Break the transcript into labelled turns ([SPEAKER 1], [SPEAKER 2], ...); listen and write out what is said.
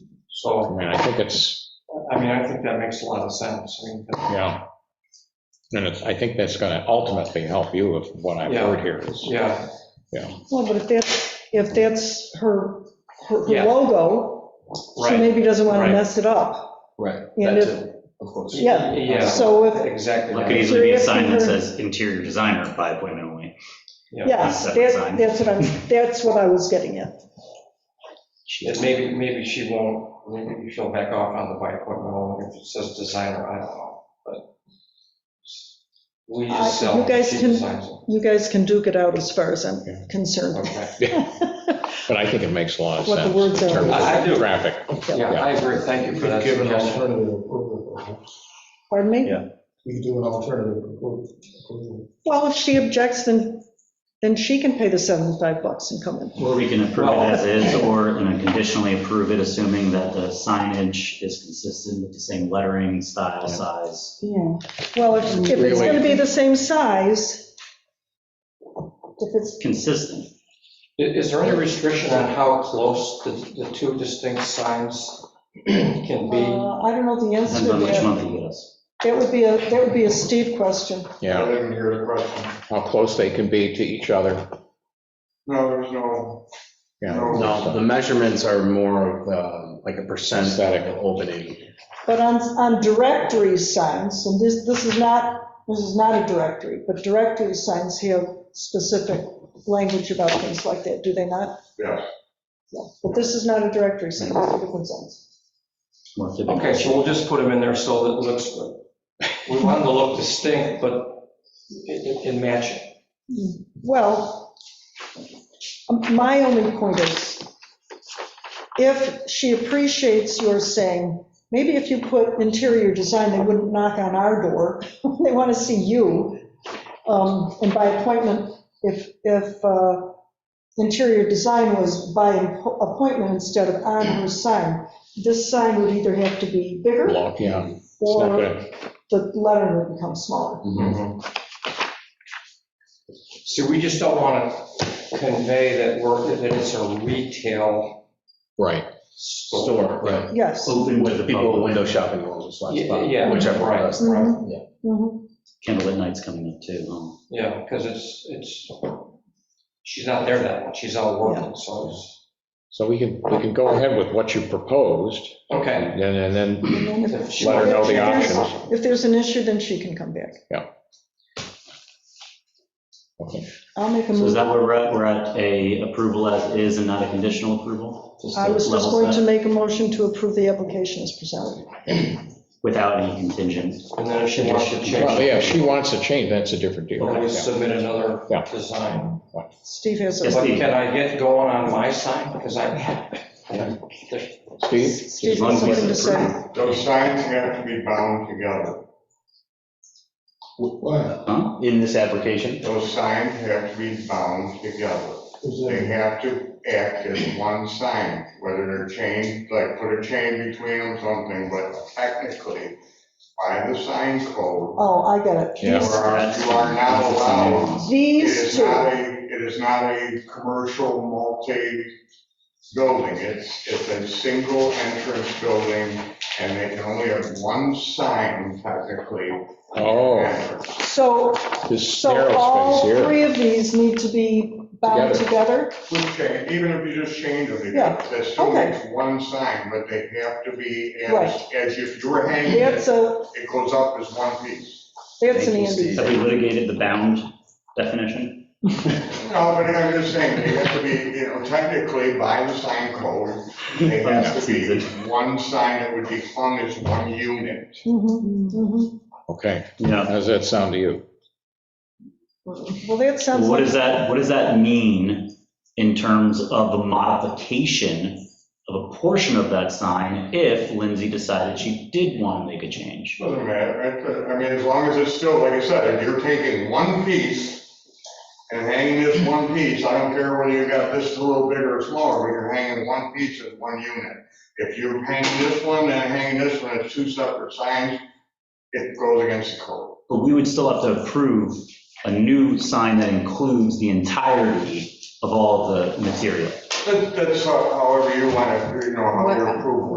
[SPEAKER 1] I
[SPEAKER 2] So,
[SPEAKER 1] mean, I think it's,
[SPEAKER 2] I mean, I think that makes a lot of sense. I mean,
[SPEAKER 1] you know, and it's, I think that's gonna ultimately help you with what I've heard here is,
[SPEAKER 2] yeah,
[SPEAKER 3] Well, but if that's, if that's her, her her
[SPEAKER 2] Yeah.
[SPEAKER 3] logo, she
[SPEAKER 2] right.
[SPEAKER 3] maybe doesn't want to
[SPEAKER 2] right.
[SPEAKER 3] mess it up.
[SPEAKER 4] Right,
[SPEAKER 3] And
[SPEAKER 4] that's
[SPEAKER 3] if-
[SPEAKER 4] it, of course.
[SPEAKER 3] Yeah.
[SPEAKER 2] Yeah.
[SPEAKER 3] So if,
[SPEAKER 2] Exactly.
[SPEAKER 5] It could
[SPEAKER 2] right.
[SPEAKER 5] easily be a sign that
[SPEAKER 3] Curious to
[SPEAKER 5] says interior designer oh by appointment only.
[SPEAKER 3] yes,
[SPEAKER 5] That's
[SPEAKER 3] that,
[SPEAKER 5] fine.
[SPEAKER 3] that's what I'm, that's what I was getting at.
[SPEAKER 2] And maybe, maybe she won't, maybe she'll back off on the bike equipment only if it says designer, I don't know, but we
[SPEAKER 3] I-
[SPEAKER 2] just sell.
[SPEAKER 3] you guys
[SPEAKER 2] she
[SPEAKER 3] can-
[SPEAKER 2] designs it.
[SPEAKER 3] You guys can duke it out as far as I'm
[SPEAKER 1] Yeah.
[SPEAKER 3] concerned.
[SPEAKER 2] Okay.
[SPEAKER 1] but I think it makes a lot of
[SPEAKER 3] What the
[SPEAKER 1] sense.
[SPEAKER 3] words
[SPEAKER 1] in
[SPEAKER 3] are.
[SPEAKER 1] terms of
[SPEAKER 2] I do.
[SPEAKER 1] Traffic.
[SPEAKER 2] Yeah, I agree, thank you
[SPEAKER 4] You
[SPEAKER 2] for that
[SPEAKER 4] could give an
[SPEAKER 2] suggestion.
[SPEAKER 4] alternative approval.
[SPEAKER 3] Pardon me?
[SPEAKER 5] Yeah.
[SPEAKER 4] You could do an alternative approval. approval.
[SPEAKER 3] Well, if she objects, then, then she can pay the 75 bucks and come in.
[SPEAKER 5] Or we can approve it as is, or you know, conditionally approve it, assuming that the signage is consistent with the same lettering, style, size.
[SPEAKER 3] Yeah. Well, if, if it's going to be the same size, if it's,
[SPEAKER 5] Consistent.
[SPEAKER 2] I- Is there any restriction on how close the, the two distinct signs can be?
[SPEAKER 3] uh, I don't know the answer
[SPEAKER 5] Depends
[SPEAKER 3] to
[SPEAKER 5] on which
[SPEAKER 3] that.
[SPEAKER 5] month you get us.
[SPEAKER 3] That would be a, that would be a Steve question.
[SPEAKER 1] Yeah,
[SPEAKER 4] didn't hear the question.
[SPEAKER 1] how close they can be to each other.
[SPEAKER 4] No, there's no.
[SPEAKER 1] Yeah.
[SPEAKER 6] No, the measurements are more of um, like a percent of
[SPEAKER 1] Aesthetic.
[SPEAKER 6] the opening.
[SPEAKER 3] But on, on directory signs, and this, this is not, this is not a directory, but directory signs have specific language about things like that, do they not?
[SPEAKER 4] Yeah.
[SPEAKER 3] Yeah, But this is not a directory sign, it's a different signs.
[SPEAKER 5] More typical.
[SPEAKER 2] Okay, so we'll just put them in there so that it looks good. We want them to look distinct, but in, in matching.
[SPEAKER 3] Well, um, my only point is, if she appreciates your saying, maybe if you put interior design, they wouldn't knock on our door, they want to see you. Um, And by appointment, if, if uh, interior design was by appointment instead of on her sign, this sign would either have to be bigger
[SPEAKER 1] Block, Yeah, it's not
[SPEAKER 3] or
[SPEAKER 1] gonna,
[SPEAKER 3] the lettering would become smaller.
[SPEAKER 2] Mm-hmm. See, we just don't want to convey that we're, that it's a retail
[SPEAKER 1] right,
[SPEAKER 2] store.
[SPEAKER 6] Store, right.
[SPEAKER 3] Yes.
[SPEAKER 5] Open to the
[SPEAKER 6] With people
[SPEAKER 5] public.
[SPEAKER 6] window shopping rolls slash
[SPEAKER 2] Yeah,
[SPEAKER 6] pop,
[SPEAKER 2] yeah,
[SPEAKER 6] whichever
[SPEAKER 2] right.
[SPEAKER 6] it is.
[SPEAKER 1] Mm-hmm.
[SPEAKER 3] Mhm,
[SPEAKER 6] Yeah.
[SPEAKER 3] mhm.
[SPEAKER 5] Candlelit night's coming up too. huh?
[SPEAKER 2] Yeah, because it's, it's, she's not there that much, she's out working, so it's,
[SPEAKER 1] so we can, we can go ahead with what you proposed,
[SPEAKER 2] okay.
[SPEAKER 1] and then, and then
[SPEAKER 3] And then
[SPEAKER 2] If
[SPEAKER 3] if-
[SPEAKER 2] she- Let
[SPEAKER 1] her know the
[SPEAKER 3] if there's-
[SPEAKER 1] options.
[SPEAKER 3] If there's an issue, then she can come back.
[SPEAKER 1] Yeah. Okay.
[SPEAKER 3] I'll make a
[SPEAKER 5] So is
[SPEAKER 3] move,
[SPEAKER 5] that where we're at? We're at a approval as is and not a conditional approval? Just
[SPEAKER 3] I
[SPEAKER 5] to
[SPEAKER 3] was just
[SPEAKER 5] level
[SPEAKER 3] going to
[SPEAKER 5] set,
[SPEAKER 3] make a motion to approve the application as presented.
[SPEAKER 5] Without any contingent.
[SPEAKER 2] And then if she wants to change.
[SPEAKER 1] Well, yeah, if she wants to change, that's a different deal.
[SPEAKER 2] Then we
[SPEAKER 1] Yeah.
[SPEAKER 2] submit another
[SPEAKER 1] Yeah.
[SPEAKER 2] design.
[SPEAKER 3] Steve has
[SPEAKER 5] Yes,
[SPEAKER 2] But
[SPEAKER 3] a,
[SPEAKER 5] Steve.
[SPEAKER 2] can I get going on my sign? Because I,
[SPEAKER 1] Steve?
[SPEAKER 3] Steve
[SPEAKER 5] As long
[SPEAKER 3] has
[SPEAKER 5] as
[SPEAKER 3] something to
[SPEAKER 5] we approve.
[SPEAKER 3] say.
[SPEAKER 7] Those signs have to be bound together.
[SPEAKER 4] What?
[SPEAKER 5] Huh?
[SPEAKER 6] In this application,
[SPEAKER 7] Those signs have to be bound together.
[SPEAKER 4] Is
[SPEAKER 7] They
[SPEAKER 4] it-
[SPEAKER 7] have to act as one sign, whether they're chained, like put a chain between them, something, but technically, by the sign code,
[SPEAKER 3] Oh, I get it.
[SPEAKER 7] or
[SPEAKER 1] Yeah.
[SPEAKER 3] These-
[SPEAKER 7] you are not allowed, it
[SPEAKER 3] These
[SPEAKER 7] is
[SPEAKER 3] two,
[SPEAKER 7] not a, it is not a commercial multi-building. It's, it's a single entrance building, and they can only have one sign technically.
[SPEAKER 1] Oh,
[SPEAKER 3] so,
[SPEAKER 1] this
[SPEAKER 3] so
[SPEAKER 1] narrow
[SPEAKER 3] all
[SPEAKER 1] space here.
[SPEAKER 3] three of these need to be bound together?
[SPEAKER 7] Food chain, even if you just change them,
[SPEAKER 3] Yeah,
[SPEAKER 7] that's still
[SPEAKER 3] okay.
[SPEAKER 7] it's one sign, but they have to be as,
[SPEAKER 3] Right.
[SPEAKER 7] as if you were hanging
[SPEAKER 3] That's
[SPEAKER 7] it,
[SPEAKER 3] a,
[SPEAKER 7] it goes up as one piece.
[SPEAKER 3] that's an
[SPEAKER 6] Thank you,
[SPEAKER 3] Andy.
[SPEAKER 6] Steve.
[SPEAKER 5] Have we litigated the bound definition?
[SPEAKER 7] No, but I'm just saying, they have to be, you know, technically by the sign code, they have to be one sign that would be hung as one unit.
[SPEAKER 3] Mhm, mhm.
[SPEAKER 1] Okay,
[SPEAKER 5] No.
[SPEAKER 1] how does that sound to you?
[SPEAKER 3] mm-hmm. Well, that sounds
[SPEAKER 5] What
[SPEAKER 3] like,
[SPEAKER 5] does that, what does that mean in terms of the modification of a portion of that sign if Lindsay decided she did want to make a change?
[SPEAKER 7] Doesn't matter, it- I mean, as long as it's still, like I said, if you're taking one piece and hanging this one piece, I don't care whether you got this a little bigger or smaller, but you're hanging one piece as one unit. If you're hanging this one and hanging this one as two separate signs, it goes against the code.
[SPEAKER 5] But we would still have to approve a new sign that includes the entirety of all the material.
[SPEAKER 7] That- That's how- however you want to, you know, how your approval